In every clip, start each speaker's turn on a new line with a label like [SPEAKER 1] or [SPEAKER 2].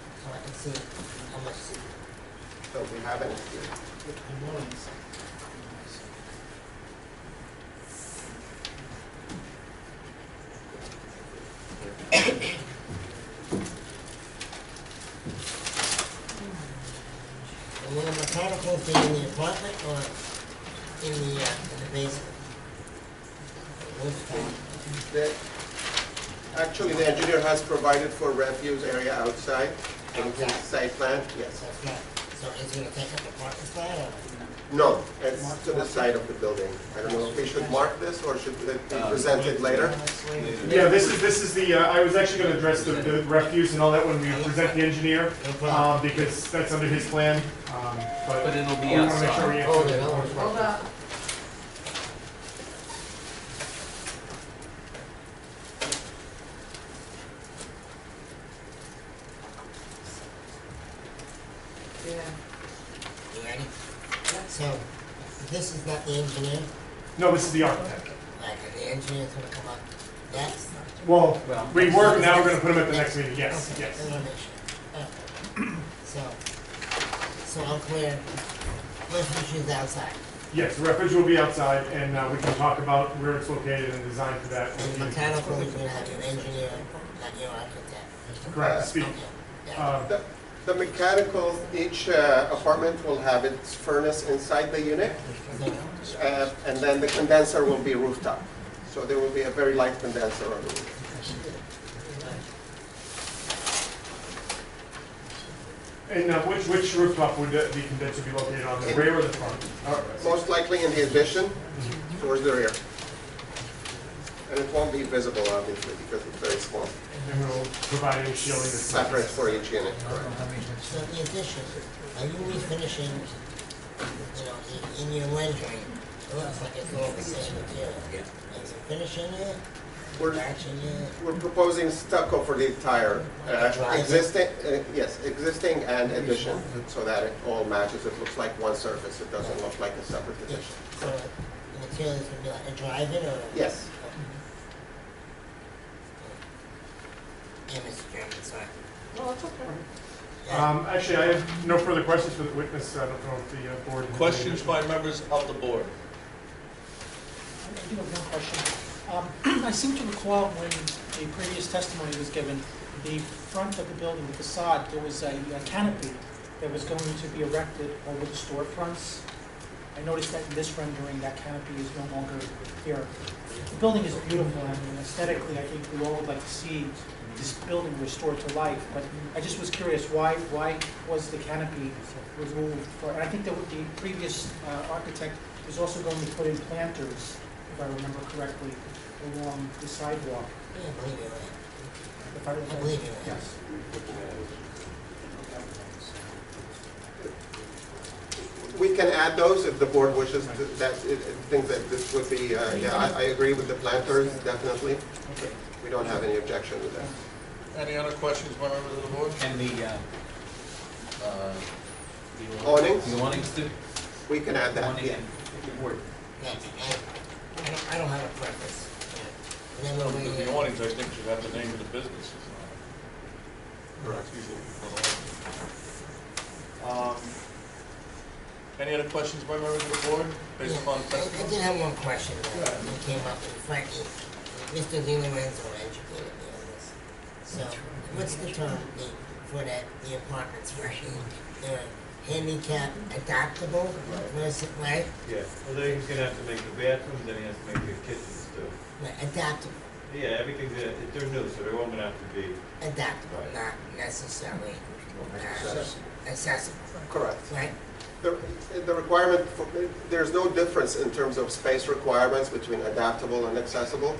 [SPEAKER 1] So, how much is it?
[SPEAKER 2] So we have it here.
[SPEAKER 1] What tomorrow is? And will the mechanicals be in the apartment or in the, uh, in the basement? Rooftop?
[SPEAKER 2] That- Actually, the engineer has provided for refuse area outside in his
[SPEAKER 1] Outside.
[SPEAKER 2] site plan, yes.
[SPEAKER 1] So it's not, so is it gonna take up the parking spot or?
[SPEAKER 2] No, it's to the side of the building. I don't know if we should mark this or should it be presented later?
[SPEAKER 1] Uh,
[SPEAKER 3] Yeah, this is, this is the, uh, I was actually gonna address the, the refuse and all that when we present the engineer,
[SPEAKER 1] No problem.
[SPEAKER 3] um, because that's under his plan, um,
[SPEAKER 4] But
[SPEAKER 3] but
[SPEAKER 4] it'll
[SPEAKER 3] we
[SPEAKER 4] be
[SPEAKER 3] wanna make sure we
[SPEAKER 4] outside.
[SPEAKER 1] Hold it, hold it.
[SPEAKER 3] answer.
[SPEAKER 5] Hold up. Yeah,
[SPEAKER 1] You ready? So, this is not the engineer,
[SPEAKER 3] No, this is the architect.
[SPEAKER 1] like, the engineer's gonna come up next?
[SPEAKER 3] Well,
[SPEAKER 4] Well,
[SPEAKER 3] we work, now we're gonna put him at the next meeting, yes,
[SPEAKER 1] Okay, I
[SPEAKER 3] yes.
[SPEAKER 1] wanna make sure. Okay. So, so I'm clear, let's use outside,
[SPEAKER 3] Yes, the refuge will be outside, and, uh, we can talk about where it's located and design for that.
[SPEAKER 1] and the mechanical, we're gonna have an engineer, not your architect.
[SPEAKER 3] Correct, speak.
[SPEAKER 1] Okay, yeah,
[SPEAKER 3] Uh,
[SPEAKER 2] The- The mechanical, each uh, apartment will have its furnace inside the unit,
[SPEAKER 1] so,
[SPEAKER 2] uh, and then the condenser will be rooftop. So there will be a very light condenser on the roof.
[SPEAKER 3] and, uh, which, which rooftop would the the condenser be located on, the rear or the front? Uh,
[SPEAKER 2] Most likely in the addition, towards the rear. And it won't be visible, obviously, because it's very small.
[SPEAKER 3] And we'll provide any shielding that's.
[SPEAKER 2] Separate for each unit, correct?
[SPEAKER 1] So the addition, are you refinishing, you know, the- in your rendering, it looks like it's all the same material. Is it finishing it,
[SPEAKER 2] We're,
[SPEAKER 1] matching it?
[SPEAKER 2] we're proposing stucco for the entire, uh, existing, uh, yes, existing and addition, so that it all matches, it looks like one surface, it doesn't look like a separate
[SPEAKER 1] Yes,
[SPEAKER 2] addition.
[SPEAKER 1] so the material is gonna be like a drive-in or?
[SPEAKER 2] Yes,
[SPEAKER 1] Yeah, Mr. Chairman, sorry.
[SPEAKER 5] well, it's okay.
[SPEAKER 1] Yeah,
[SPEAKER 3] Um, actually, I have no further questions for the witness, I don't know if the uh, board. has any
[SPEAKER 4] Questions
[SPEAKER 3] additional-
[SPEAKER 4] by members of the board?
[SPEAKER 6] I do have one question. Um, I seem to recall when a previous testimony was given, the front of the building, the facade, there was a a canopy that was going to be erected over the storefronts. I noticed that in this rendering, that canopy is no longer here. The building is beautiful, I mean aesthetically, I think we all would like to see this building restored to life, but I just was curious, why, why was the canopy removed? Or- And I think that with the previous uh, architect was also going to put in planters, if I remember correctly, along the sidewalk.
[SPEAKER 1] I believe you, right?
[SPEAKER 6] If I
[SPEAKER 1] I believe you.
[SPEAKER 6] Yes.
[SPEAKER 2] we can add those if the board wishes, to- that, it- it thinks that this would be, uh, yeah, I, I agree with the planters, definitely.
[SPEAKER 6] Okay.
[SPEAKER 2] We don't have any objection to that.
[SPEAKER 4] Any other questions by members of the board?
[SPEAKER 7] And the, uh, uh, the
[SPEAKER 2] Awnings?
[SPEAKER 7] The awnings too?
[SPEAKER 2] We can add that,
[SPEAKER 7] Awning
[SPEAKER 2] yeah.
[SPEAKER 7] and the board.
[SPEAKER 1] Yeah, I, I don't, I don't have a preference. yeah. And then we'll
[SPEAKER 4] Because
[SPEAKER 1] be,
[SPEAKER 4] the awnings, I think, should have the name of the business. Correct. Um, Any other questions by members of the board,
[SPEAKER 1] Yeah,
[SPEAKER 4] based upon
[SPEAKER 1] I- I
[SPEAKER 4] testimony?
[SPEAKER 1] did have one question that that came up, and frankly, Mr. Di Lorenzo educated me on this. So, what's the term the- for that, the apartments, right? They're handicap adaptable versus, right?
[SPEAKER 8] Yeah, well, then he's gonna have to make the bathrooms, then he has to make the kitchens too.
[SPEAKER 1] Right, Adaptable,
[SPEAKER 8] Yeah, everything's, uh, they're new, so they're all gonna have to be,
[SPEAKER 1] adaptable,
[SPEAKER 8] Right.
[SPEAKER 1] not necessarily uh, accessible,
[SPEAKER 2] Correct.
[SPEAKER 1] right?
[SPEAKER 2] The the requirement, for- there's no difference in terms of space requirements between adaptable and accessible.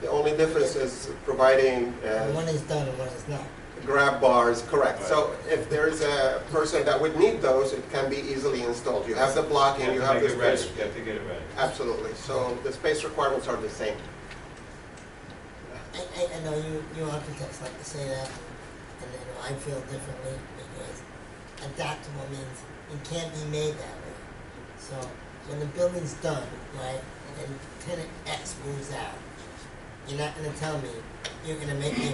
[SPEAKER 2] The only difference is providing
[SPEAKER 1] And One
[SPEAKER 2] uh,
[SPEAKER 1] is done and one is not.
[SPEAKER 2] grab bars, correct. So if there's a person that would need those, it can be easily installed. You have the blocking,
[SPEAKER 8] you
[SPEAKER 2] you
[SPEAKER 8] have
[SPEAKER 2] have
[SPEAKER 8] to
[SPEAKER 2] the
[SPEAKER 8] make it ready,
[SPEAKER 2] space.
[SPEAKER 8] you have to get it ready.
[SPEAKER 2] Absolutely. So the space requirements are the same.
[SPEAKER 1] I, I, I know you, you architects like to say that, and you know, I feel differently because adaptable means it can't be made that way. So when the building's done, right, and tenant X moves out, you're not gonna tell me you're gonna make me